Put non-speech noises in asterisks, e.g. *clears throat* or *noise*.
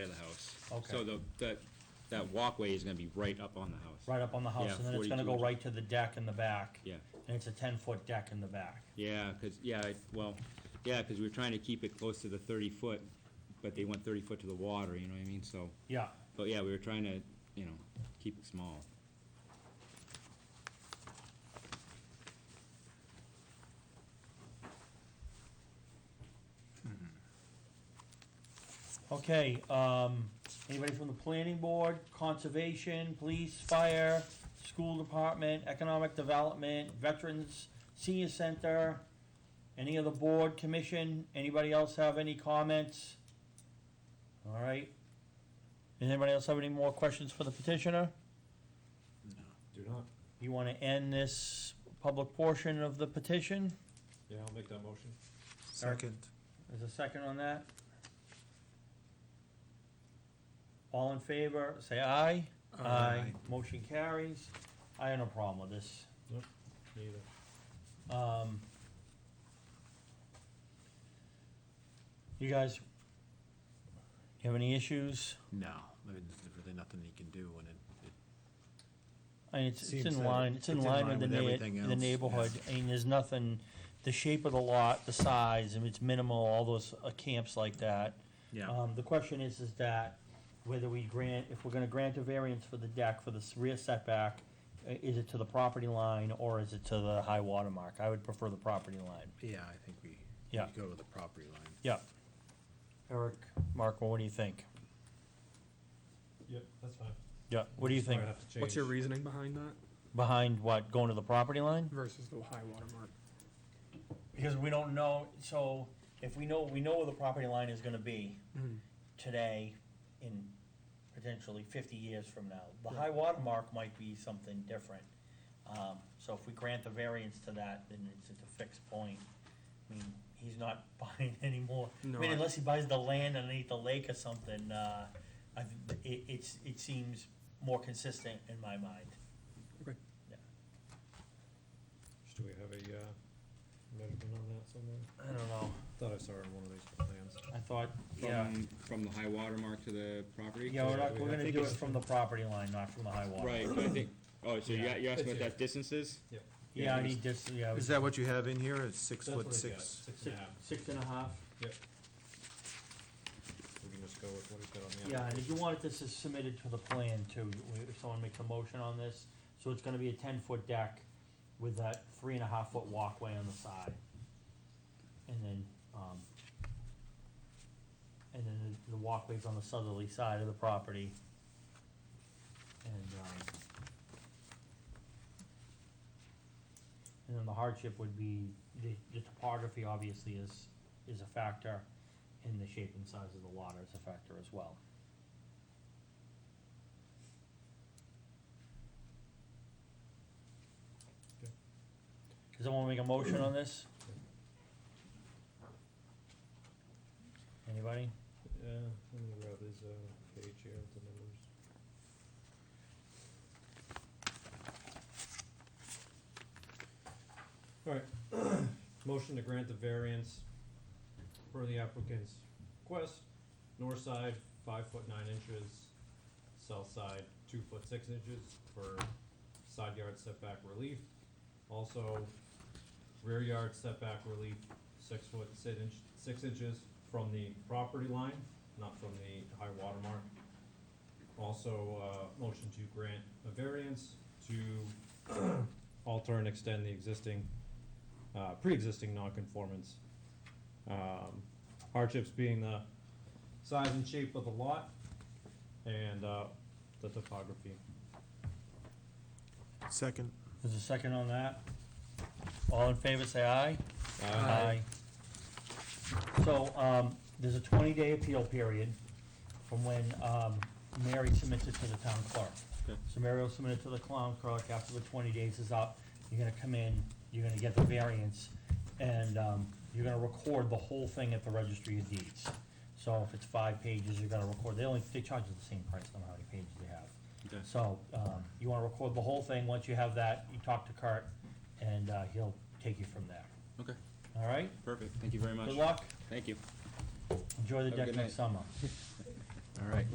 So okay. the, that, that walkway is gonna be right up on the house. Right up on the house, Yeah, and then it's gonna 42 go inches. right to the deck in the back. Yeah. And it's a ten-foot deck in the back. Yeah, 'cause- yeah, I- well, yeah, 'cause we were trying to keep it close to the thirty foot, but they went thirty foot to the water, you know what I mean, so. Yeah, But yeah, we were trying to, you know, keep it small. okay, um, anybody from the planning board, conservation, police, fire, school department, economic development, veterans, senior center, any of the board, commission, anybody else have any comments? All right. Does anybody else have any more questions for the petitioner? Do not. You wanna end this public portion of the petition? Yeah, I'll make that motion. Second. There's a second on that? All in favor, say aye. Motion carries. I have no problem with this. Neither. Um, you guys, you have any issues? No, I mean, there's really nothing you can do when it, it I mean, it's, it's Seems in that line, it's in line with the everything neigh- the else, neighborhood. I mean, there's nothing, the shape of the lot, the size, I mean, it's minimal, all those uh, camps like that. yeah, Um, the question is, is that whether we grant, if we're gonna grant a variance for the deck for the s- rear setback, i- is it to the property line or is it to the high water mark? I would prefer the property line. yeah, I think we, we Yeah. go to the property line. Yeah. Eric, Marco, what do you think? Yep, that's fine. Yeah, what do you think? Might have to What's your change. reasoning behind that Behind what, going to the property line? versus the high water mark? Because we don't know, so if we know, we know where the property line is gonna be today in potentially fifty years from now. The high water mark might be something different. Um, so if we grant the variance to that, then it's at a fixed point. I mean, he's not *laughs* buying anymore. I No, mean, I- unless he buys the land underneath the lake or something, uh, I, th- it, it's, it seems more consistent in my mind. Do we have a, uh, measurement on that somewhere? I don't know, Thought I saw it in one of these plans. I thought, yeah. From, from the high water mark to the property? Yeah, we're not, Yeah, we're I gonna think do it it's- from the property line, not from the high water. Right, but I think, oh, so you, you asked It's what here. that distance is? Yep. Yeah, I need this, yeah. Is that what you have in here? It's six That's what I foot got, six? Six and a half. Six and a half, Yep. We can just go with what he's got on the. yeah, and if application. you wanted this is submitted to the plan too, we- if someone makes a motion on this, so it's gonna be a ten-foot deck with that three and a half foot walkway on the side. And then, um, and then the- the walkway's on the southerly side of the property. And, um, and then the hardship would be, the, the topography obviously is, is a factor, and the shape and size of the water is a factor as well. Does anyone make a motion on this? Anybody? Yeah, let me grab his, uh, page here with the numbers. Alright, *clears throat* motion to grant the variance for the applicant's request, north side, five foot nine inches, south side, two foot six inches for side yard setback relief. Also, rear yard setback relief, six foot, six inch, six inches from the property line, not from the high water mark. Also, uh, motion to grant a variance to *clears throat* alter and extend the existing, uh, pre-existing non-conformance. Um, hardships being the size and shape of the lot and, uh, the topography. Second. There's a second on that? All in favor, say aye. Uh, Aye. So, um, there's a twenty-day appeal period from when, um, Mary submits it to the town clerk. Okay. So Mary will submit it to the town clerk after the twenty days is up. You're gonna come in, you're gonna get the variance, and, um, you're gonna record the whole thing at the registry of deeds. So if it's five pages, you're gonna record, they only, they charge you the same price, no matter how many pages they have. Okay. So, um, you wanna record the whole thing, once you have that, you talk to Kurt, and, uh, he'll take you from there, Okay, all right? perfect, thank you very much. Good luck, Thank you. enjoy the Have a deck good next night. summer. All right.